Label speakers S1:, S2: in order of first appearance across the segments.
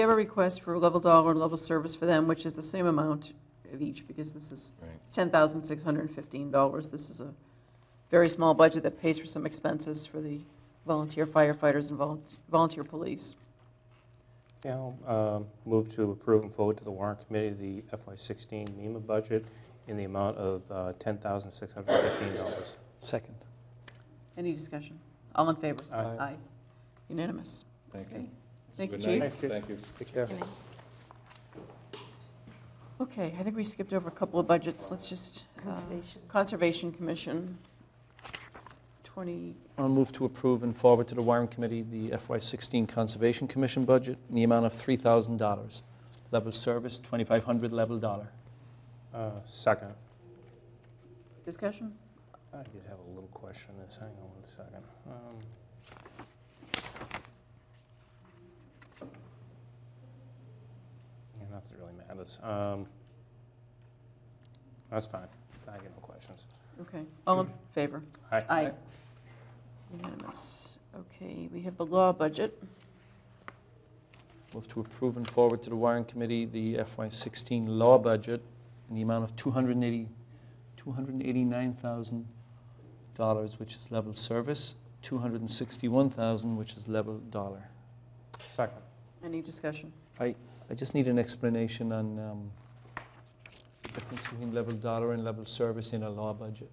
S1: We have a request for level dollar and level service for them, which is the same amount of each, because this is
S2: Right.
S1: $10,615. This is a very small budget that pays for some expenses for the volunteer firefighters and volun- volunteer police.
S3: Yeah, I'll uh, move to approve and forward to the warrant committee the FY16 MEMA budget in the amount of uh, $10,615.
S4: Second.
S1: Any discussion? All in favor?
S3: Aye.
S1: Aye. Unanimous.
S2: Thank
S1: Okay.
S2: you.
S1: Thank you,
S2: Good night.
S1: Chief.
S3: Chief.
S2: Thank you.
S3: Take care.
S1: Okay, I think we skipped over a couple of budgets. Let's just, uh,
S5: Conservation.
S1: Conservation Commission, 20,
S4: I'll move to approve and forward to the wiring committee the FY16 Conservation Commission budget in the amount of $3,000. Level service, 2,500 level dollar.
S3: Uh, Second.
S1: discussion?
S3: I did have a little question on this, hang on one second. Um, Yeah, not that it really matters. Um, That's fine, I get no questions.
S1: Okay, all in favor?
S3: Aye.
S1: Aye. Unanimous. Okay, we have the law budget.
S4: Move to approve and forward to the wiring committee the FY16 law budget in the amount of 280 $289,000, which is level service, 261,000, which is level dollar.
S3: Second.
S1: Any discussion?
S4: I just need an explanation on um, the difference between level dollar and level service in a law budget.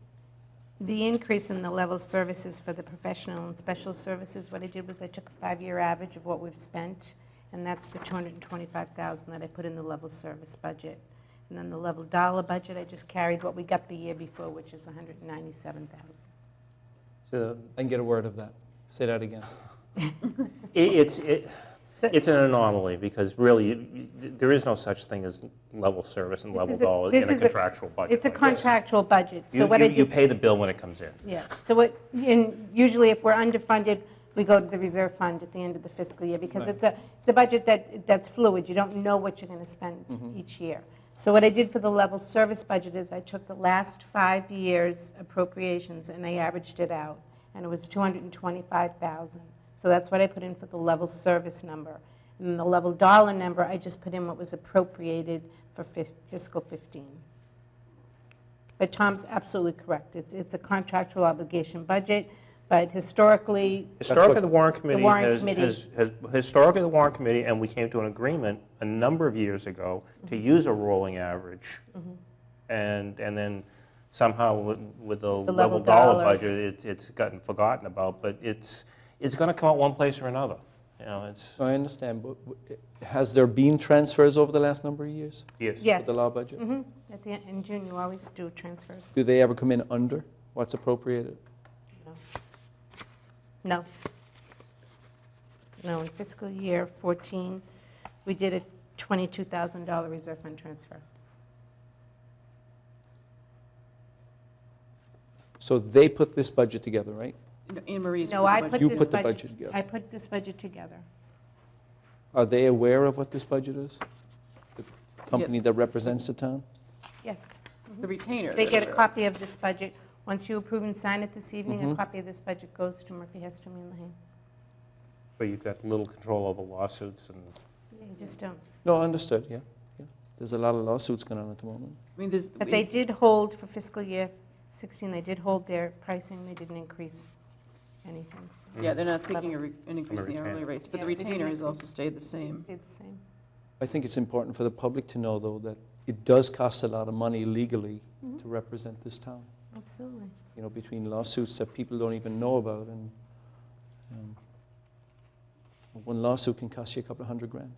S5: Uh, The increase in the level services for the professional and special services, what I did was I took a five-year average of what we've spent, and that's the 225,000 that I put in the level service budget. And then the level dollar budget, I just carried what we got the year before, which is 197,000.
S3: So
S4: I can get a word of that. Say that again.
S3: It- It's, it- it's an anomaly, because really, you- you- there is no such thing as level service and
S5: This
S3: level
S5: is a-
S3: dollar
S5: this
S3: in a
S5: is a-
S3: contractual budget.
S5: It's a
S3: like this.
S5: contractual budget, so
S3: You-
S5: what I
S3: You you
S5: did,
S3: pay the bill when it comes in.
S5: yeah, so what, and usually if we're underfunded, we go to the reserve fund at the end of the fiscal year, because
S4: Right.
S5: it's a, it's a budget that, that's fluid, you don't know what you're going to spend each year. So what I did for the level service budget is I took the last five years appropriations and I averaged it out, and it was 225,000. So that's what I put in for the level service number. And the level dollar number, I just put in what was appropriated for fis- fiscal 15. But Tom's absolutely correct, it's, it's a contractual obligation budget, but historically,
S3: Historically, the warrant committee
S5: warrant
S3: has,
S5: committee.
S3: has, has- historically, the warrant committee, and we came to an agreement a number of years ago to
S5: Mm-hmm.
S3: use a rolling average. And, and then somehow with- with the
S5: The level
S3: level dollar
S5: dollars.
S3: budget, it's, it's gotten forgotten about, but it's, it's going to come out one place or another, you know, it's,
S4: I understand, but w- has there been transfers over the last number of years?
S3: yes.
S5: yes.
S4: With the law budget?
S5: Mhm. At the, in June, you always do transfers.
S4: Do they ever come in under what's appropriated?
S5: No. No, in fiscal year 14, we did a $22,000 reserve fund transfer.
S4: So they put this budget together, right?
S1: Anne Marie's.
S5: No, I put
S4: You
S5: this
S4: put the
S5: budget-
S4: budget together.
S5: I put this budget together.
S4: Are they aware of what this budget is? The company that represents the town?
S5: Yes. Mm-hmm.
S1: The retainer.
S5: They
S1: that
S5: get a
S1: we're-
S5: copy of this budget. Once you approve and sign it this evening, a
S4: Mhm.
S5: copy of this budget goes to Murphy, Heston, and Lehane.
S3: But you've got little control over lawsuits and
S5: You just don't.
S4: No, understood, yeah, yeah. There's a lot of lawsuits going on at the moment.
S1: I mean, there's.
S5: But they did hold for fiscal year 16, they did hold their pricing, they didn't increase anything. so
S1: Yeah, they're not seeking a re- an increase in the
S3: retainer.
S1: hourly rates, but the
S5: Yeah, they didn't
S1: retainer has
S5: increase.
S1: also stayed the
S5: it
S1: same.
S5: stayed the same.
S4: I think it's important for the public to know, though, that it does cost a lot of money legally
S5: Mhm.
S4: to represent this town,
S5: Absolutely.
S4: you know, between lawsuits that people don't even know about, and um, one lawsuit can cost you a couple of hundred grand.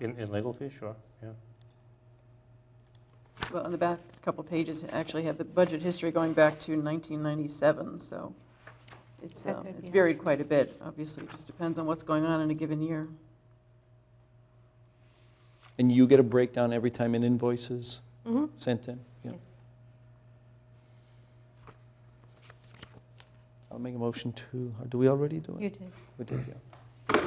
S3: in in legal fees, sure, yeah.
S1: Well, on the back, couple pages actually have the budget history going back to 1997, so it's,
S5: That
S1: um,
S5: could
S1: it's
S5: be
S1: varied quite a bit. Obviously, it just depends on what's going on in a given year.
S4: And you get a breakdown every time an invoice is
S5: Mm-hmm.
S4: sent in? Yeah.
S5: Yes.
S4: I'll make a motion to, or do we already do it?
S5: You did.
S4: We did, yeah.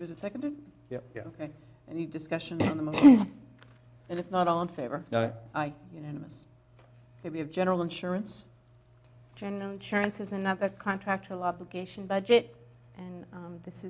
S1: Was it seconded?
S4: Yep.
S3: Yeah.
S1: Okay. Any discussion on the motion? And if not, all in favor?
S4: Aye.
S1: Aye, unanimous. Okay, we have general insurance.
S5: General insurance is another contractual obligation budget, And um, this is